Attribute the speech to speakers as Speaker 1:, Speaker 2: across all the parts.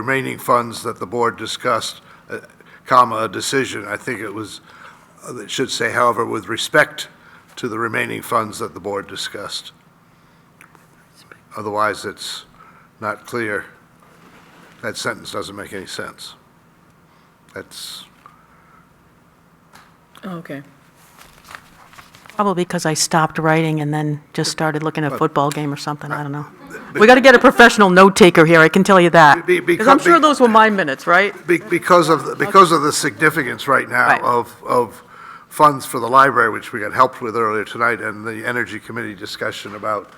Speaker 1: remaining funds that the board discussed, uh, comma, a decision, I think it was, uh, it should say, however, with respect to the remaining funds that the board discussed. Otherwise, it's not clear. That sentence doesn't make any sense. That's,
Speaker 2: Oh, Okay.
Speaker 3: Probably because I stopped writing and then just started looking at a football game or something, I don't know. We got to get a professional note-taker here, I can tell you that.
Speaker 1: Be-
Speaker 2: Because I'm
Speaker 1: because-
Speaker 2: sure those were my minutes, right?
Speaker 1: be- because of, the- because of the significance right now
Speaker 2: Right.
Speaker 1: of, of funds for the library, which we got helped with earlier tonight, and the Energy Committee discussion about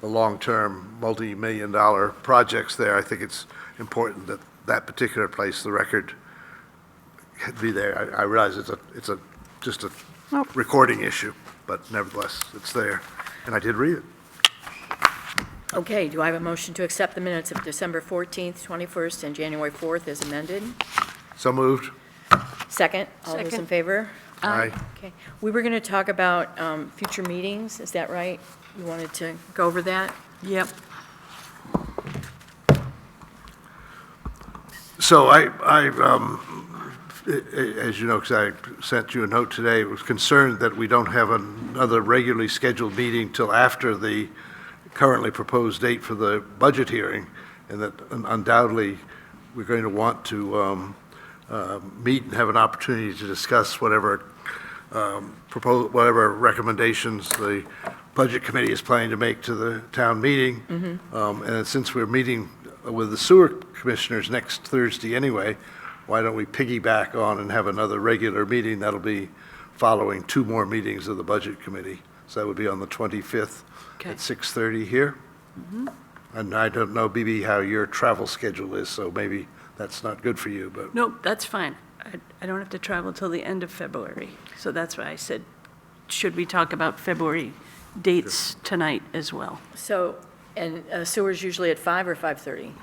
Speaker 1: the long-term, multi-million dollar projects there, I think it's important that that particular place, the record, be there. I I realize it's a, it's a, just a
Speaker 3: Nope.
Speaker 1: recording issue, but nevertheless, it's there, and I did read it.
Speaker 4: Okay, do I have a motion to accept the minutes of December 14th, 21st, and January 4th as amended?
Speaker 1: So moved.
Speaker 4: Second, all those in
Speaker 5: Second.
Speaker 4: favor?
Speaker 1: Aye.
Speaker 4: Okay, we were going to talk about um, future meetings, is that right? You wanted to go over that?
Speaker 2: Yep.
Speaker 1: So I, I, um, a- a- as you know, because I sent you a note today, was concerned that we don't have another regularly scheduled meeting till after the currently proposed date for the budget hearing, and that undoubtedly, we're going to want to um, uh, meet and have an opportunity to discuss whatever propose, whatever recommendations the Budget Committee is planning to make to the town meeting. Um, And since we're meeting with the sewer commissioners next Thursday anyway, why don't we piggyback on and have another regular meeting? That'll be following two more meetings of the Budget Committee. So that would be on the 25th
Speaker 2: Okay.
Speaker 1: at 6:30 here. And I don't know, BB, how your travel schedule is, so maybe that's not good for you, but
Speaker 5: Nope, that's fine. I- I don't have to travel till the end of February. So that's why I said, should we talk about February dates tonight as well?
Speaker 4: So, and uh, sewer's usually at 5 or 5:30?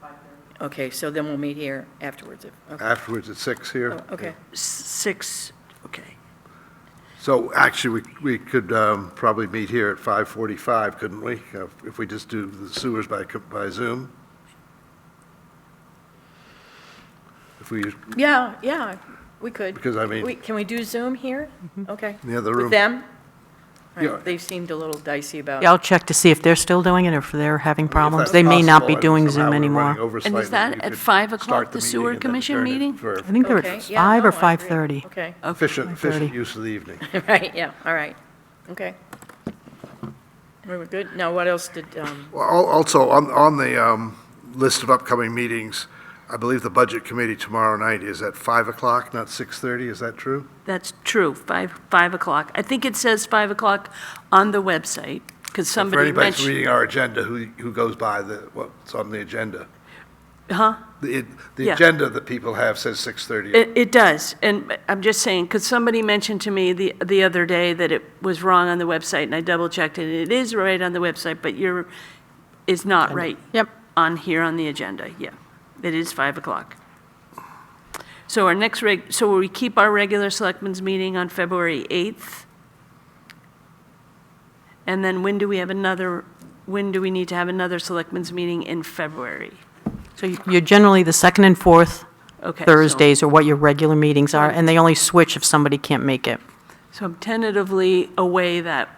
Speaker 4: 5:30. Okay, so then we'll meet here afterwards, if- okay.
Speaker 1: afterwards at 6 here.
Speaker 4: Oh, okay.
Speaker 5: S- Six, okay.
Speaker 1: So actually, we, we could um, probably meet here at 5:45, couldn't we? Uh, If we just do the sewers by, co- by Zoom? If we,
Speaker 4: Yeah, yeah, we could.
Speaker 1: Because I mean-
Speaker 4: We- Can we do Zoom here? Okay.
Speaker 1: In the other room.
Speaker 4: With them? All
Speaker 1: Yeah.
Speaker 4: right, They seemed a little dicey about.
Speaker 3: Yeah, I'll check to see if they're still doing it or if they're
Speaker 1: I
Speaker 3: having
Speaker 1: mean, if
Speaker 3: problems.
Speaker 1: that's
Speaker 3: They may not
Speaker 1: possible,
Speaker 3: be
Speaker 1: and
Speaker 3: doing
Speaker 1: somehow
Speaker 3: Zoom
Speaker 1: we're running
Speaker 3: anymore.
Speaker 1: over
Speaker 5: And is
Speaker 1: slightly,
Speaker 5: that
Speaker 1: we
Speaker 5: at
Speaker 1: could
Speaker 5: 5 o'clock,
Speaker 1: start
Speaker 5: the sewer
Speaker 1: meeting and then
Speaker 5: commission
Speaker 1: adjourn it
Speaker 5: meeting?
Speaker 1: For
Speaker 3: I think they're
Speaker 4: Okay,
Speaker 3: at
Speaker 4: yeah,
Speaker 3: five or
Speaker 4: no, I agree.
Speaker 3: 5:30.
Speaker 4: Okay,
Speaker 1: efficient, efficient
Speaker 3: 5:30.
Speaker 1: use of the evening.
Speaker 4: right, yeah, all right, okay. We were good, now what else did, um,
Speaker 1: Well, al- Also, on, on the um, list of upcoming meetings, I believe the Budget Committee tomorrow night is at 5 o'clock, not 6:30, is that true?
Speaker 5: That's true, 5, 5 o'clock. I think it says 5 o'clock on the website, because
Speaker 1: For
Speaker 5: somebody
Speaker 1: anybody who's
Speaker 5: mentioned.
Speaker 1: reading our agenda, who, who goes by the, what's on the agenda?
Speaker 5: Huh?
Speaker 1: The, it- the
Speaker 5: Yeah.
Speaker 1: agenda that people have says 6:30.
Speaker 5: It, it does, and I'm just saying, because somebody mentioned to me the, the other day that it was wrong on the website, and I double-checked it, and it is right on the website, but you're, is not right.
Speaker 3: Yep.
Speaker 5: On here on the agenda, yeah. It is 5 o'clock. So our next reg, so will we keep our regular selectmen's meeting on February 8th? And then when do we have another, when do we need to have another selectmen's meeting in February?
Speaker 3: So you- you're generally the second and fourth
Speaker 5: Okay. so-
Speaker 3: Thursdays are what your regular meetings are, and they only switch if somebody can't make it.
Speaker 5: So I'm tentatively away that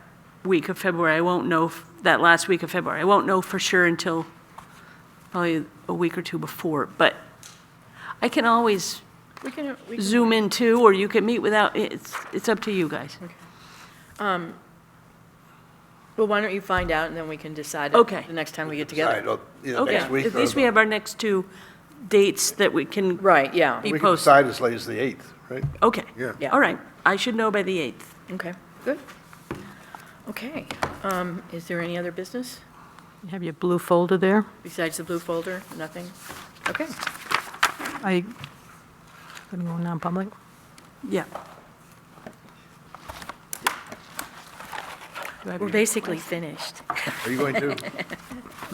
Speaker 5: week of February. I won't know, f- that last week of February. I won't know for sure until probably a week or two before, but I can always
Speaker 4: we can, we can,
Speaker 5: zoom in too, or you can meet without, it's, it's up to you guys.
Speaker 4: well, why don't you find out, and then we can decide. it
Speaker 5: Okay.
Speaker 4: The next time we get
Speaker 1: Decide,
Speaker 4: together.
Speaker 1: uh, you know,
Speaker 5: Okay,
Speaker 1: next week.
Speaker 5: at least
Speaker 1: or-
Speaker 5: we have our next two dates that we can.
Speaker 4: Right, yeah,
Speaker 5: Be
Speaker 1: We can
Speaker 5: posted.
Speaker 1: decide as late as the 8th, right?
Speaker 5: Okay.
Speaker 1: Yeah.
Speaker 4: Yeah.
Speaker 5: All right. I should know by the 8th.
Speaker 4: okay, good. Okay, um, is there any other business
Speaker 3: You Have your blue folder there?
Speaker 4: besides the blue folder? Nothing? Okay,
Speaker 3: I, gonna go non-public?
Speaker 5: Yeah.
Speaker 4: we're basically finished.
Speaker 1: Are you going to?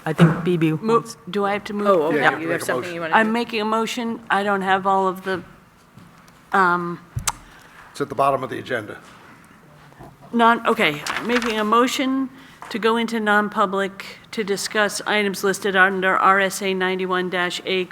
Speaker 3: I think BB
Speaker 5: Mo-
Speaker 3: wants,
Speaker 5: Do I have to move?
Speaker 4: Oh,
Speaker 1: you have
Speaker 4: okay,
Speaker 1: to
Speaker 4: you
Speaker 1: make
Speaker 4: have
Speaker 1: a
Speaker 4: something you want to
Speaker 5: I'm
Speaker 4: do?
Speaker 5: making a motion. I don't have all of the,
Speaker 1: It's at the bottom of the agenda.
Speaker 5: non, okay, I'm making a motion to go into non-public to discuss items listed under RSA 91-A